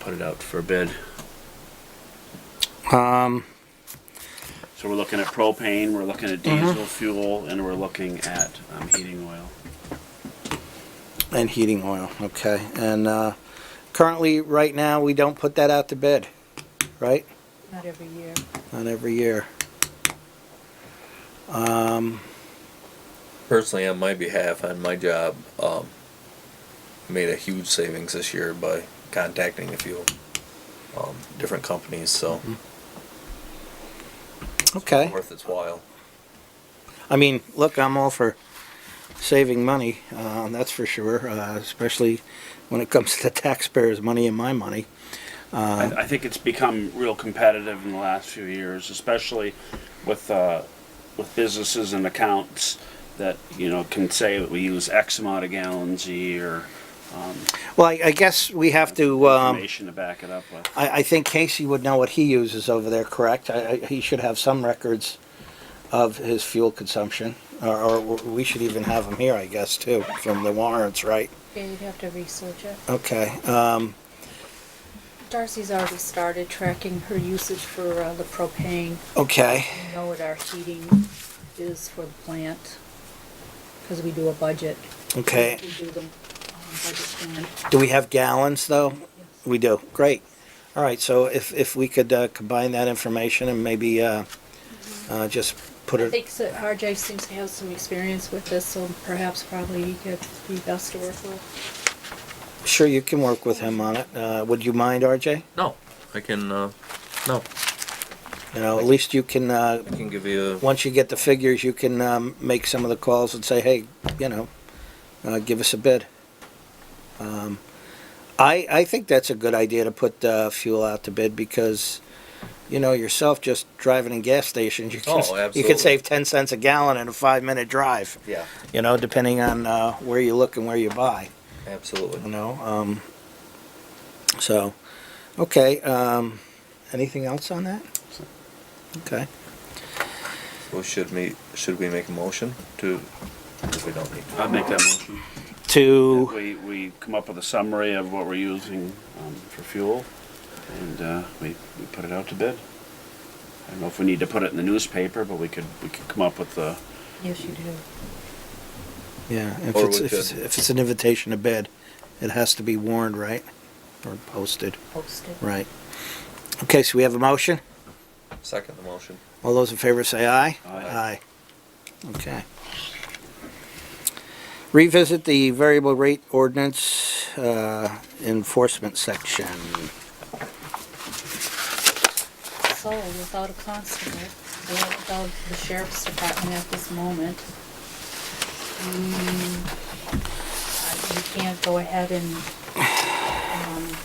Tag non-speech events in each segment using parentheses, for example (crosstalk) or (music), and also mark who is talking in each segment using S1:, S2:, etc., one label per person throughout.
S1: put it out for bid.
S2: Um,
S1: So we're looking at propane, we're looking at
S2: Mm-hmm.
S1: diesel fuel, and we're looking at um, heating oil.
S2: and heating oil, okay. And, uh, currently, right now, we don't put that out to bid, right?
S3: Not every year.
S2: Not every year. Um,
S4: personally on my behalf on my job um, made a huge savings this year by contacting a few um, different companies so
S2: okay.
S4: worth its while
S2: I mean, look, I'm all for saving money, uh, that's for sure, uh, especially when it comes to (laughs) the taxpayers' money and my money. Uh,
S1: I,
S2: Uh-huh.
S1: I think it's become real competitive in the last few years, especially with, uh, with businesses and accounts that, you know, can say that we use X amount of gallons a year,
S2: Well, I, I guess we have to, um,
S1: information to back it up with.
S2: I, I think Casey would know what he uses over there, correct? I, I, he should have some records of his fuel consumption, or, or we should even have them here, I guess, too, from the warrants, right?
S3: Yeah, you'd have to research it.
S2: Okay, um,
S3: Darcy's already started tracking her usage for uh, the propane.
S2: okay,
S3: We know what our heating is for the plant, because we do a budget.
S2: okay.
S3: We do the um, budget plan.
S2: Do we have gallons, though? We do, great. All right, so if, if we could uh, combine that information and maybe uh, uh, just put
S3: I
S2: it,
S3: think so- RJ seems to have some experience with this, so perhaps probably he could be best to work with.
S2: sure, you can work with him on it. Uh, Would you mind, RJ?
S4: no i can uh, no
S2: You know, at least you can, uh,
S4: i can give you a,
S2: once you get the figures, you can um, make some of the calls and say, hey, you know, uh, give us a bid. Um, I, I think that's a good idea to put uh, fuel out to bid because, you know, yourself just driving in gas stations, you can,
S4: Oh,
S2: you can
S4: absolutely.
S2: save 10 cents a gallon in a five minute drive,
S4: yeah
S2: you know, depending on uh, where you look and where you buy, you
S4: absolutely
S2: know. Um, so, okay. Um, anything else on that? Okay.
S4: so should we should we make a motion to if we don't need to
S1: I'd make that motion.
S2: To.
S1: We, we come up with a summary of what we're using um, for fuel, and uh, we, we put it out to bid. I don't know if we need to put it in the newspaper, but we could, we could come up with the,
S3: Yes, you do.
S2: Yeah, if
S4: Or
S2: it's,
S4: we
S2: if it's,
S4: could-
S2: if it's an invitation to bid, it has to be warned, right? Or posted,
S3: Post it.
S2: right? Okay, so we have a motion?
S4: second the motion
S2: All those in favor say aye?
S1: Aye.
S2: Aye. Okay. Revisit the variable rate ordinance, uh, enforcement section.
S3: So without a constable, or without the sheriff's department at this moment, we, uh, we can't go ahead and, um,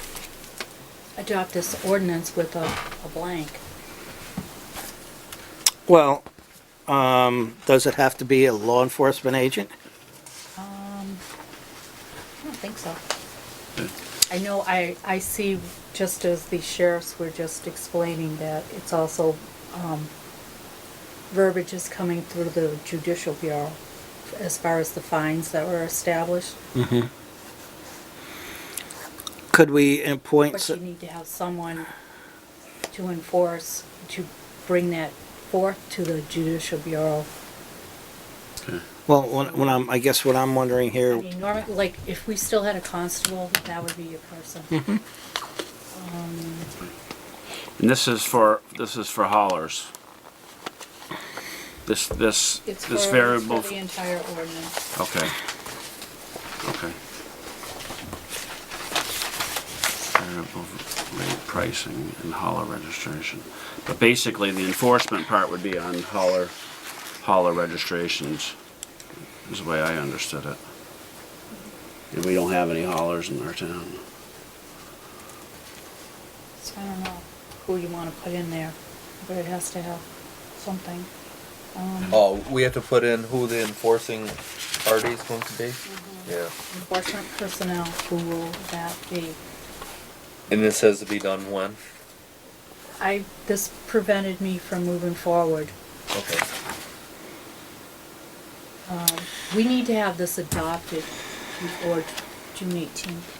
S3: adopt this ordinance with a, a blank.
S2: Well, um, does it have to be a law enforcement agent?
S3: Um, I don't think so.
S1: Hmm.
S3: I know, I, I see, just as the sheriffs were just explaining that, it's also, um, verbiage is coming through the judicial bureau as far as the fines that were established,
S2: Could we appoint?
S3: but
S2: s-
S3: you need to have someone to enforce, to bring that forth to the judicial bureau.
S2: Well, when, when I'm, I guess what I'm wondering
S3: I
S2: here,
S3: mean, normally, like, if we still had a constable, that would be your person.
S1: Mm-hmm. and this is for, this is for haulers. This, this,
S3: It's for,
S1: this
S3: it's
S1: variable,
S3: for the entire ordinance.
S1: okay. Okay. Variable rate pricing and hauler registration. But basically, the enforcement part would be on hauler, hauler registrations, is the way I understood it. And we don't have any haulers in our town.
S3: So I don't know who you want to put in there, but it has to have something. Um,
S4: oh we have to put in who the enforcing party is going to be yeah
S3: Enforcement personnel, who will that be?
S4: and it says to be done when
S3: I, this prevented me from moving forward.
S4: okay
S3: Um, We need to have this adopted before June eighteenth.